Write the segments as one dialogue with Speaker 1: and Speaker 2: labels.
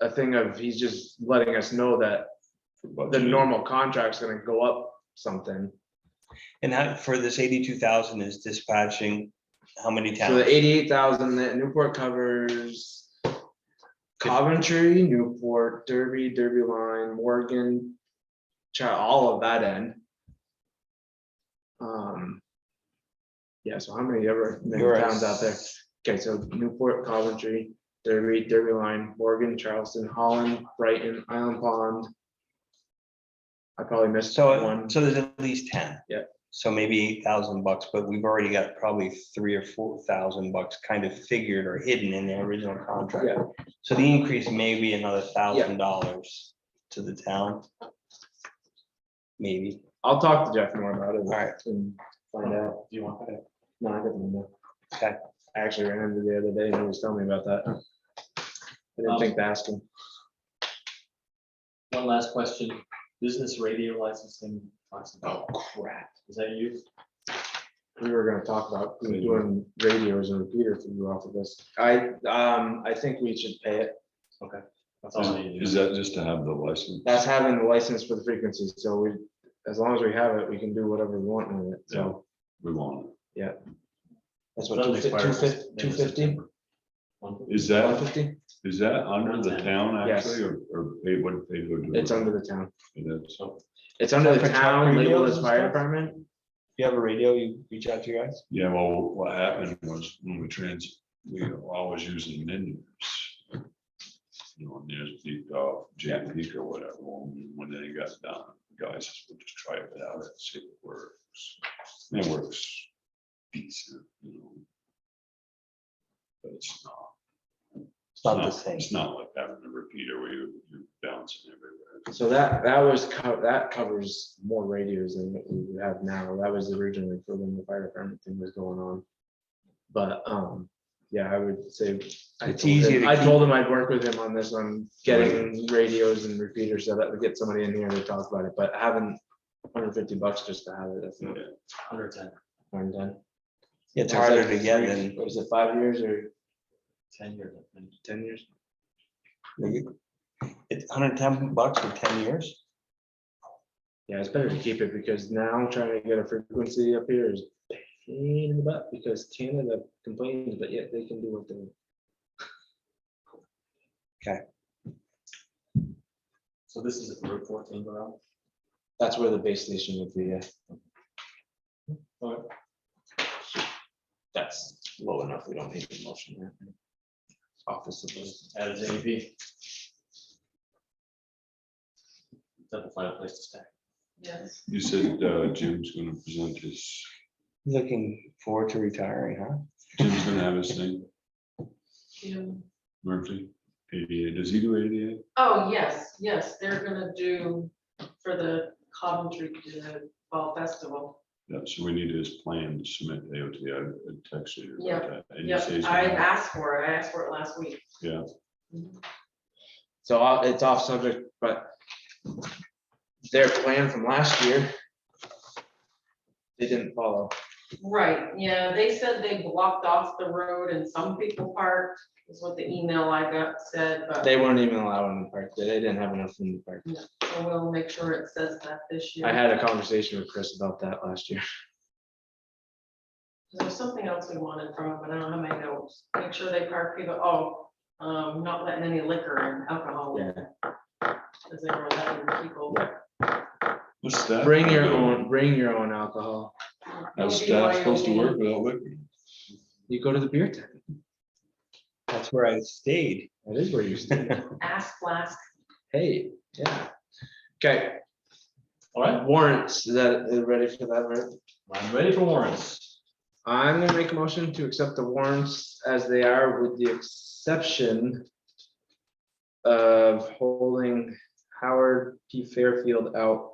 Speaker 1: a thing of he's just letting us know that the
Speaker 2: But-
Speaker 1: normal contract's gonna go up something.
Speaker 2: And how, for this eighty-two thousand is dispatching, how many
Speaker 1: So the
Speaker 2: towns?
Speaker 1: eighty-eight thousand that Newport covers Coventry, Newport, Derby, Derby line, Morgan, try all of that end. Um. Yeah, so how many ever many
Speaker 2: You're at
Speaker 1: towns out there? Okay, so Newport, Coventry, Derby, Derby line, Morgan, Charleston, Holland, Brighton, Island Pond. I probably missed
Speaker 2: So,
Speaker 1: one.
Speaker 2: so there's at least ten.
Speaker 1: Yeah.
Speaker 2: So maybe eight thousand bucks, but we've already got probably three or four thousand bucks kind of figured or hidden in the original contract.
Speaker 1: Yeah.
Speaker 2: So the increase may be another thousand dollars to the town. Maybe,
Speaker 1: I'll talk to Jeff more about it.
Speaker 2: Alright.
Speaker 1: And find out. Do you want that? No, I didn't know.
Speaker 2: Okay.
Speaker 1: I actually ran into the other day and he was telling me about that. I didn't
Speaker 3: Um,
Speaker 1: think to ask him.
Speaker 3: One last question, business radio licensing. Oh crap. Is that you?
Speaker 1: We were gonna talk about
Speaker 2: Maybe.
Speaker 1: doing radios and repeater for you off of this. I, um, I think we should pay it.
Speaker 3: That's all I
Speaker 4: Is
Speaker 3: need.
Speaker 4: is that just to have the license?
Speaker 1: That's having the license for the frequency, so we, as long as we have it, we can do whatever we want with it, so.
Speaker 4: We want.
Speaker 2: that's what.
Speaker 3: Doesn't expire
Speaker 1: Two
Speaker 3: this-
Speaker 1: fif-
Speaker 3: end of
Speaker 1: two fifty?
Speaker 3: September. One-
Speaker 4: Is
Speaker 1: One
Speaker 4: that,
Speaker 1: fifty?
Speaker 4: is that under the town
Speaker 1: Yes.
Speaker 4: actually or, or pay what they would? do?
Speaker 1: It's under the town.
Speaker 4: It is.
Speaker 1: It's under
Speaker 2: For
Speaker 1: the
Speaker 2: truck
Speaker 1: town,
Speaker 2: radios
Speaker 1: Legolas
Speaker 2: and
Speaker 1: Fire
Speaker 2: stuff?
Speaker 1: Department.
Speaker 2: You have a radio, you reach out to your guys?
Speaker 4: Yeah, well, what happened was when we trans, we were always using menus. You know, and there's the uh, Jam Peak or whatever, and when they got done, guys, just, we'll just try it out and see if it works. And It works decent, you know. But it's not.
Speaker 2: It's not the same.
Speaker 4: It's not like having a repeater where you, you're bouncing everywhere.
Speaker 1: So that, that was, co- that covers more radios than what we have now. That was originally for when the fire department thing was going on. But, um, yeah, I would say, I
Speaker 2: It's
Speaker 1: told
Speaker 2: easy
Speaker 1: him,
Speaker 2: to
Speaker 1: I
Speaker 2: keep-
Speaker 1: told him I'd work with him on this on getting radios and repeaters so that we get somebody in here to talk about it, but having hundred fifty bucks just to have it, that's not
Speaker 4: Yeah,
Speaker 3: Under ten,
Speaker 1: harm done.
Speaker 2: It's harder to get than.
Speaker 1: Was it five years or
Speaker 3: ten years. I think.
Speaker 1: ten years?
Speaker 2: It's hundred and ten bucks for ten years?
Speaker 1: Yeah, it's better to keep it because now trying to get a frequency up here is a pain in the butt because Canada complains, but yet they can do what they want.
Speaker 3: So this is Route fourteen, go out.
Speaker 1: That's where the base station would be, yeah.
Speaker 3: Alright.
Speaker 1: That's low enough, we don't need a motion. there. Office of,
Speaker 3: Just add as AEP. That's the final place to stay.
Speaker 5: Yes.
Speaker 4: you said uh, Jim's gonna present his,
Speaker 2: Looking forward to retiring, huh?
Speaker 4: Jim's gonna have his thing,
Speaker 5: June.
Speaker 4: Murphy, ADA, does he do ADA?
Speaker 5: Oh, yes, yes, they're gonna do for the Coventry uh, Fall Festival.
Speaker 4: Yeah, so we need his plan to submit AOT, I I texted you
Speaker 5: Yeah,
Speaker 4: about that. and you say
Speaker 5: Yep,
Speaker 4: he's
Speaker 5: I
Speaker 4: gonna-
Speaker 5: asked for it, I asked for it last week.
Speaker 4: Yeah.
Speaker 5: Mhm.
Speaker 1: so uh, it's off subject, but their plan from last year, they didn't follow.
Speaker 5: Right, yeah, they said they blocked off the road and some people parked, is what the email I got said, but
Speaker 1: They weren't even allowing the park, they didn't have enough room to park.
Speaker 5: we'll make sure it says that this year.
Speaker 1: I had a conversation with Chris about that last year.
Speaker 5: There's something else we wanted from them, but I don't have my notes. Make sure they park people, oh, um, not letting any liquor and alcohol. in. Cause they were letting people.
Speaker 4: What's that?
Speaker 1: Bring your own, bring your own alcohol.
Speaker 4: How's staff supposed to work without liquor?
Speaker 1: You go to the beer tent.
Speaker 2: That's where I stayed.
Speaker 1: That is where you stand.
Speaker 5: Ask last.
Speaker 1: Hey, yeah. Okay,
Speaker 3: Alright,
Speaker 1: warrants, is that, is it ready for that, right?
Speaker 3: I'm ready for warrants.
Speaker 1: I'm gonna make a motion to accept the warrants as they are with the exception of holding Howard P. Fairfield out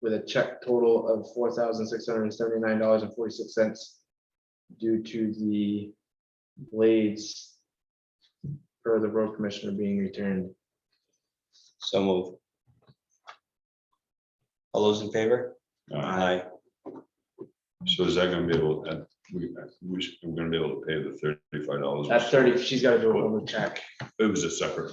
Speaker 1: with a check total of four thousand six hundred and seventy-nine dollars and forty-six cents due to the blades for the road commissioner being returned.
Speaker 2: So move. All those in favor?
Speaker 4: Uh, So is that gonna be able, uh, we, we should- we're gonna be able to pay the thirty-five dollars?
Speaker 1: That's thirty, she's gotta do a whole new check.
Speaker 4: It was a separate.